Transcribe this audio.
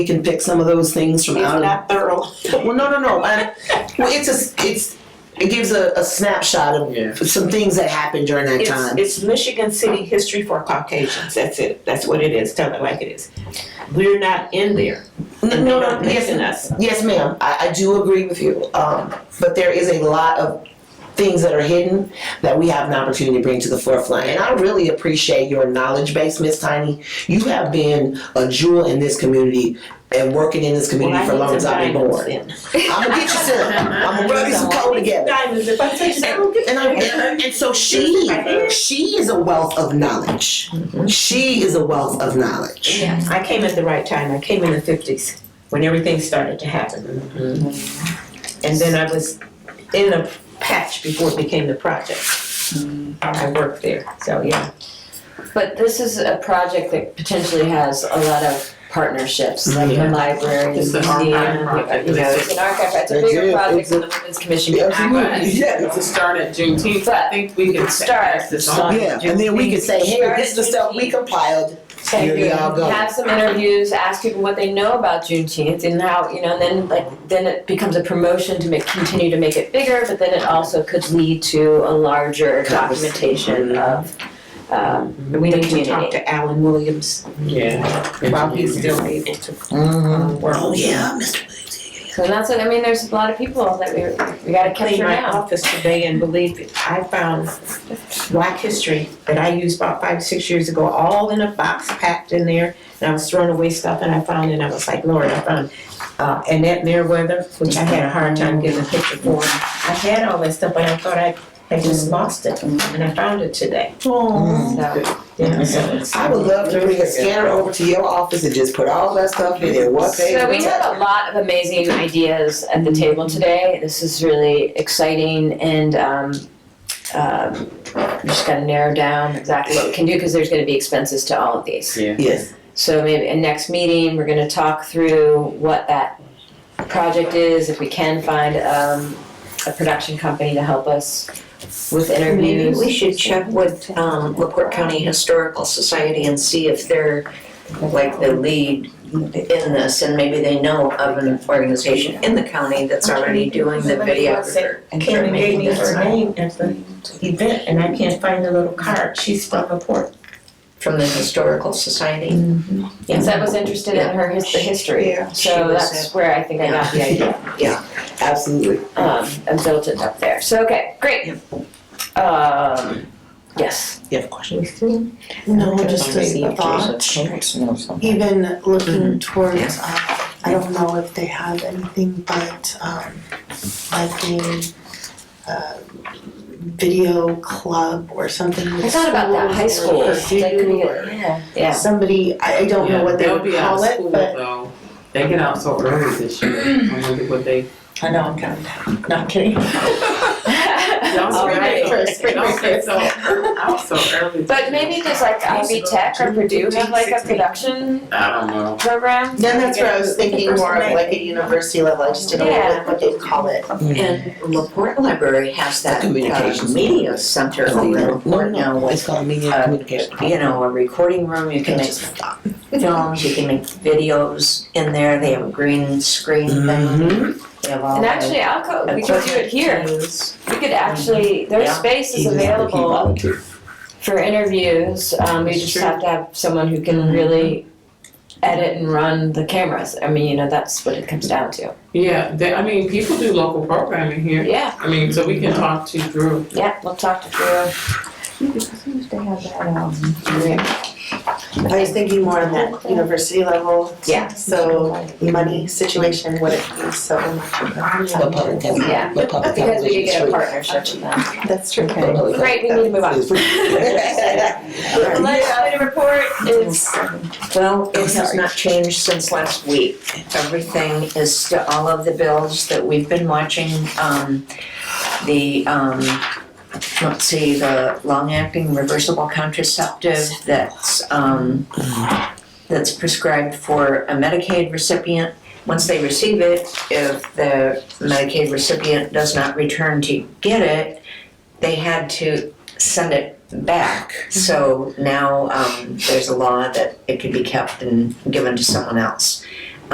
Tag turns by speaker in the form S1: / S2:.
S1: we can pick some of those things from
S2: She's
S1: out of.
S2: not thorough.
S1: Well, no, no, no. I, well, it's a, s- it's, it gives a, a snapshot of
S3: Yeah.
S1: some things that happened during that time.
S2: It's, it's Michigan City history for Caucasians. That's it. That's what it is. Tell it like it is. We're not in there.
S1: No,
S2: And
S1: no,
S2: they're not
S1: no, yes,
S2: mixing us.
S1: Yes, ma'am, I, I do agree with you, um, but there is a lot of things that are hidden that we have an opportunity to bring to the forefront, and I really appreciate your knowledge base, Miss Tiny. You have been a jewel in this community and working in this
S2: Well,
S1: community
S2: I
S1: for as long
S2: need
S1: as
S2: some
S1: I've been
S2: diamonds
S1: born.
S2: then.
S1: I'm gonna get you some, I'm gonna rub you some coal together.
S2: Diamonds. If I take some, I don't get
S1: And, I, and, and so she, she is a wealth of knowledge. She is a wealth of knowledge.
S4: Yes.
S2: I came at the right time. I came in the fifties when everything started to happen.
S1: Mm-hmm.
S2: And then I was in a patch before it became the project.
S1: Mm-hmm.
S2: I worked there, so yeah.
S4: But this is a project that potentially has a lot of partnerships, like the
S2: Mm-hmm.
S1: Yeah.
S4: library,
S3: It's
S4: the
S3: an
S4: museum, you
S3: archive project.
S4: know, it's an archive, it's a
S1: It
S4: bigger
S1: is.
S4: project
S1: It's
S4: than the Women's Commission can act on.
S1: Absolutely. Yeah.
S3: It's a start at Juneteenth, I think we can
S4: Start.
S3: pass this on.
S1: Yeah, and then we can say, hey, this is the stuff we compiled. Here we all go.
S4: Have some interviews, ask people what they know about Juneteenth and how, you know, and then like, then it becomes a promotion to make, continue to make it bigger, but then it also could lead to a larger
S1: Conversation.
S4: documentation of, um,
S2: We need to talk
S4: community.
S2: to Alan Williams
S3: Yeah.
S2: while he's still able to
S1: Mm-hmm.
S2: um, work.
S1: Oh, yeah, Mr.
S4: So that's what, I mean, there's a lot of people that we, we gotta
S2: cleaned
S4: capture
S2: my
S4: now.
S2: office today and believe it, I found black history that I used about five, six years ago, all in a box packed in there. And I was throwing away stuff and I found it and I was like, Lord, I found uh, Annette Meriwether, which I had a hard time getting a picture for. I had all that stuff, but I thought I had just lost it and I found it today.
S1: Oh.
S4: So,
S2: You know, so it's-
S1: I would love to bring a scanner over to your office and just put all that stuff in there, what they.
S4: so we had a lot of amazing ideas at the table today. This is really exciting and, um, um, we just gotta narrow down exactly what we can do, cause there's gonna be expenses to all of these.
S1: Yes,
S4: So maybe in next meeting, we're gonna talk through what that project is, if we can find, um, a production company to help us with
S5: Maybe
S4: interviews.
S5: we should check with um, LaPorte County Historical Society and see if they're like the lead in this, and maybe they know of an organization in the county that's already doing the videographer.
S2: Karen gave me her name at the event and I can't find the little card. She's from the port.
S5: From the Historical Society.
S4: Yes, I was interested in her his, the history,
S2: Yeah.
S5: She
S4: so
S5: was
S4: that's where I think I got the idea.
S1: absolutely.
S4: um, and built it up there. So, okay, great. Um, yes.
S1: You have a question?
S6: No, just a thought, even looking towards, uh, I don't know if they have anything, but, um, like a, uh, video club or something
S4: I
S6: with schools
S4: thought about that, high school.
S6: or
S4: Like, could we
S6: pursuit
S4: get-
S6: or
S4: yeah, yeah.
S6: somebody, I, I don't know what they would call
S3: They'll
S6: it,
S3: be out of school
S6: but.
S3: though, they get out so early this year, I wonder what they.
S5: I know, I'm kind of, not kidding.
S3: Don't
S4: All
S3: say
S4: right.
S3: so- Don't say so, ear- out so early.
S4: But maybe does like Ivy Tech or Purdue have like a production
S3: I don't know.
S4: program?
S6: Then that's where I was thinking more of like a university level, I just didn't know
S4: Yeah.
S6: what, what they'd call it.
S5: And LaPorte Library has that uh,
S1: Communications.
S5: media center over in LaPorte now with,
S1: called media
S5: uh,
S1: communication.
S5: you know, a recording room, you can make films, you can make videos in there, they have a green screen thing.
S1: Mhm.
S5: They have all
S4: And
S5: the
S4: actually, Alco, we could do it here. We could actually, there's
S5: Yeah.
S4: space is
S1: Even if he
S4: available
S1: volunteered.
S4: for interviews. Um, we
S3: It's
S4: just
S3: true.
S4: have to have someone who can really edit and run the cameras. I mean, you know, that's what it comes down to.
S3: Yeah, they, I mean, people do local programming here,
S4: Yeah.
S3: I mean, so we can talk to Drew.
S4: Yeah, we'll talk to Drew.
S6: I was thinking more on that university level,
S4: Yeah.
S6: so money situation, what it means, so.
S1: But public has-
S4: Yeah.
S1: but public has
S4: Because we could get a
S1: free.
S4: partnership with them.
S6: That's true.
S1: But public has-
S4: Great, we need to move on.
S1: is free.
S4: The legislative report is,
S5: Well,
S1: I'm
S5: it has
S1: sorry.
S5: not changed since last week. Everything is still, all of the bills that we've been watching, um, the, um, let's see, the long-acting reversible contraceptive that's, um, that's prescribed for a Medicaid recipient. Once they receive it, if the Medicaid recipient does not return to get it, they had to send it back. So now um, there's a law that it can be kept and given to someone else.